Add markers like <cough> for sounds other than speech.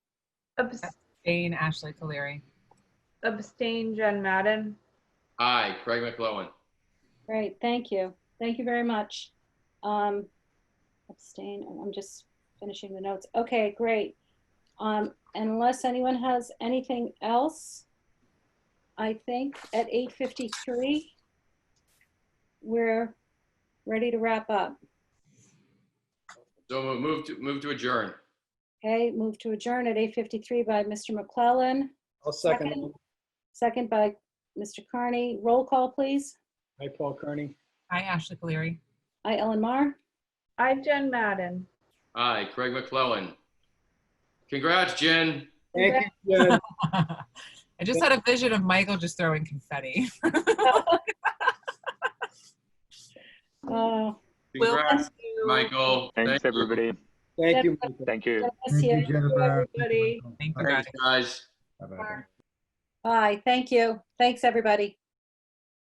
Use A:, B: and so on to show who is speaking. A: Abs-
B: Jane Ashley Caleri.
A: Abstain, Jen Madden.
C: Aye, Craig McClellan.
D: Great, thank you. Thank you very much. Um, abstain, oh, I'm- I'm just finishing the notes. Okay, great. Um, unless anyone has anything else, I think at 8:53, we're ready to wrap up.
C: So move to, move to adjourn.
D: Okay, move to adjourn at 8:53 by Mr. McClellan,
E: I'll second.
D: Second.
E: it.
D: second by Mr. Carney. Roll call, please.
E: Hi, Paul Kearney.
B: Hi, Ashley Caleri.
D: Aye, Ellen Mar.
A: I, Jen Madden.
C: Aye, Craig McClellan. Congrats, Jen.
E: Thank you, Jen.
B: <laughs> I just had a vision of Michael just throwing confetti. <laughs>
D: Oh,
B: Will,
C: Congrats,
B: thank you.
C: Michael.
F: Thanks,
C: Thank you.
F: everybody.
E: Thank you. Michael.
F: Thank you.
D: bless you.
G: Jennifer.
A: everybody.
B: Thank you, guys.
C: Thanks, guys.
G: Bye-bye.
D: Bye, thank you. Thanks, everybody.